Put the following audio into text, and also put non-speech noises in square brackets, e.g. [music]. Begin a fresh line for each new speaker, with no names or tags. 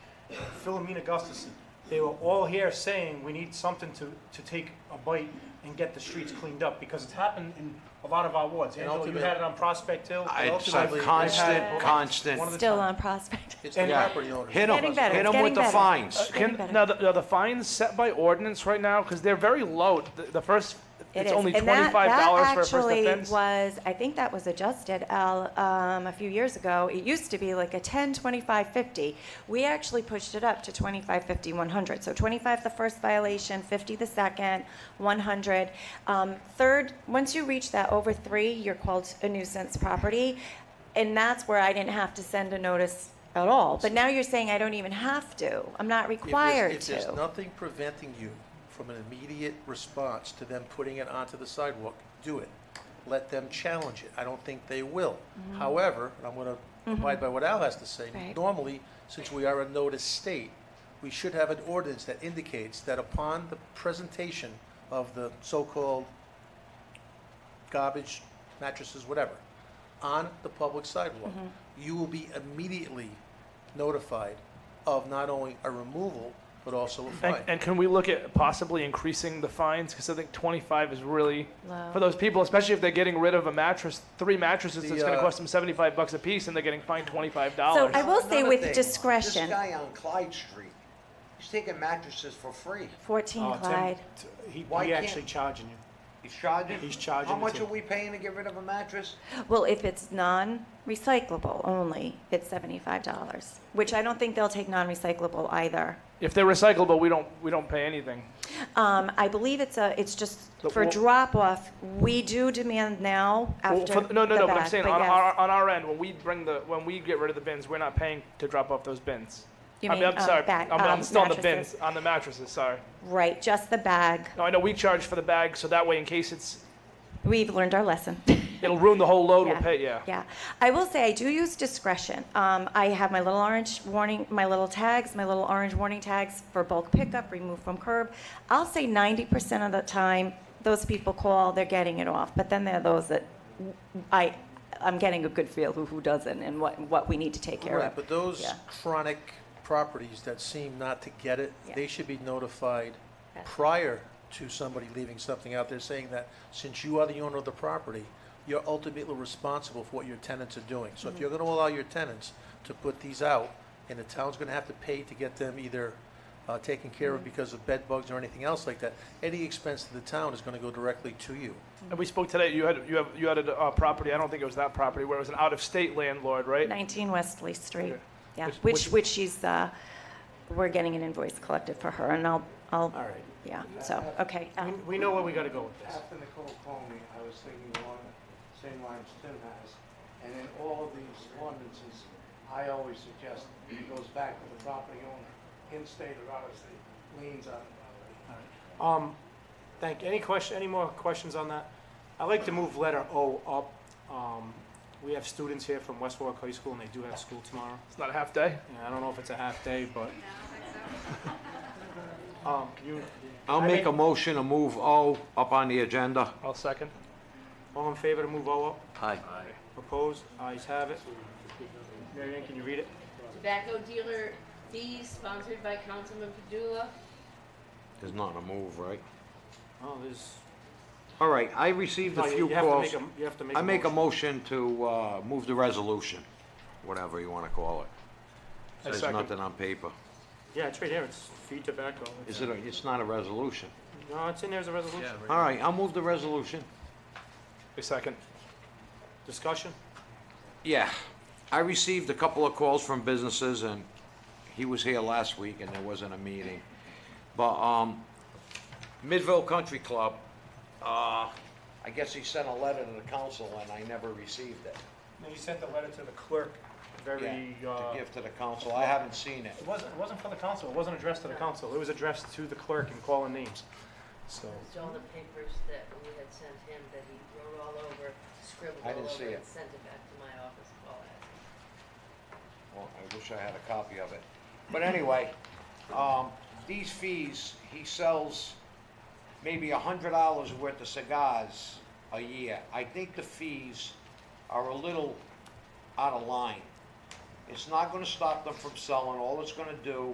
Philomena Gustafson, they were all here saying we need something to, to take a bite and get the streets cleaned up, because it's happened in a lot of our wards.
And
Angelo, you
ultimately-
had it on Prospect Hill.
It's
ultimately,
a
they've
had-
constant,
One of
constant,
the
Still
time.
on Prospect. [laughs]
It's the
Yeah.
property owners.
hit
Getting
them,
better,
hit
it's
them with
getting
the
better.
Uh,
fines.
Getting
Can,
better.
now, the, are the fines set by ordinance right now? Because they're very low. The, the first,
It
it's
is.
only
And that-
$25 for a first
That
offense.
actually was, I think that was adjusted, Al, um, a few years ago. It used to be like a 10, 25, 50. We actually pushed it up to 25, 50, 100. So 25 the first violation, 50 the second, 100. Um, Third, once you reach that over three, you're called a nuisance property. And that's where I didn't have to send a notice at all. But now you're saying I don't even have to. I'm not
If there's-
required
If there's
to.
nothing preventing you from an immediate response to them putting it onto the sidewalk, do it. Let them challenge it. I don't think they will. However, and I'm going to abide by what Al has to say.
Mm-hmm. Right.
Normally, since we are a notice state, we should have an ordinance that indicates that upon the presentation of the so-called garbage, mattresses, whatever, on the public sidewalk, you will be immediately notified of not only a removal, but also a
And,
fine.
and can we look at possibly increasing the fines? Because I think 25 is really
Low.
for those people, especially if they're getting rid of a mattress, three mattresses.
The,
that's going to
uh,
cost them 75 bucks a piece, and they're getting fined 25
So
dollars.
I will say
Another
with
thing,
discretion,
This guy on Clyde Street, he's taking mattresses for free.
14
Oh, Tim,
Clyde.
t- He,
Why
he
can't-
actually charging you.
He's charging?
He's charging
How
the
much
team.
are we paying to get rid of a mattress?
Well, if it's non-recyclable only, it's seventy-five dollars, which I don't think they'll take non-recyclable either.
if they're recyclable, we don't we don't pay anything.
Um, I believe it's a, it's just
But
for
we'll-
drop-off, we do demand now
Well,
after the
for- no, no, no. But I'm
fact,
saying
but
on
yes.
our on our end, when we bring the when we get rid of the bins, we're not paying to drop off those bins.
You
I mean,
mean,
I'm
um,
sorry.
bag-
I'm, I'm
um,
still on the
mattresses.
bins on the mattresses. Sorry.
Right, just the bag.
No, I know we charge for the bag, so that way, in case it's
We've learned our lesson.
it'll ruin the whole load, we'll
Yeah,
pay. Yeah.
Yeah. I will say I do use discretion. Um, I have my little orange warning, my little tags, my little orange warning tags for bulk pickup, remove from curb. I'll say 90% of the time, those people call, they're getting it off. But then there are those that I, I'm getting a good feel who, who doesn't and what, what we need to take care
Right,
of.
but those
Yeah.
chronic properties that seem not to get it,
Yeah.
they should be notified
Yes.
prior to somebody leaving something out there saying that, since you are the owner of the property, you're ultimately responsible for what your tenants are doing. So if
Mm-hmm.
you're gonna allow your tenants to put these out, and the town's gonna have to pay to get them either, uh, taken care
Mm-hmm.
of because of bed bugs or anything else like that, any expense to the town is gonna go directly to you.
And we spoke today. You had you have you had a uh, property. I don't think it was that property where it was an out-of-state landlord, right?
19 Wesley Street.
Okay.
Yeah,
Which-
which,
which-
which she's, uh, we're getting an invoice collected for her and I'll, I'll,
All right.
yeah, so, okay.
We,
um,
we know where we gotta go with this.
After Nicole called me, I was thinking along the same lines Tim has. And in all of these ordinances, I always suggest it goes back to the property owner, in state or out of state, liens on the property.
Um, thank, any question, any more questions on that? I'd like to move letter O up. Um, we have students here from West Warwick High School and they do have school tomorrow.
It's not a half day.
And I don't know if it's a half day, but. Um, you,
I'll
I
make a
make-
motion to move O up on the agenda.
I'll second.
all in favor to move O up?
Aye.
Opposed? Ayes have it. Mary Ann, can you read it?
Tobacco dealer D, sponsored by Councilman Padula.
There's not a move, right?
Oh, there's.
All right, I received a
no, you-
few
you have to
calls.
make a- You have to make a.
I make a
motion.
motion to uh, move the resolution, whatever you want to call it.
I
There's
second.
nothing on paper.
Yeah, it's right here. It's feed tobacco.
Is it, a- it's not a resolution.
No, it's in there as a resolution.
All right, I'll move the resolution.
A second.
Discussion?
Yeah, I received a couple of calls from businesses, and he was here last week, and there wasn't a meeting. But, um, Midville Country Club, uh, I guess he sent a letter to the council, and I never received it.
No, you sent the letter to the clerk very,
Yeah,
uh,
To
it
give to the council, I haven't seen it.
wasn't, it wasn't for the council, it wasn't addressed to the council, it was addressed to the clerk and calling names. So,
It's all the papers that we had sent him that he wrote all over, scribbled
I
all
didn't see
over and
it.
sent it back to my office, Paul asked.
Well, I wish I had a copy of it. But anyway, um, these fees, he sells maybe a hundred dollars worth of cigars a year. I think the fees are a little out of line. It's not gonna stop them from selling. All it's gonna do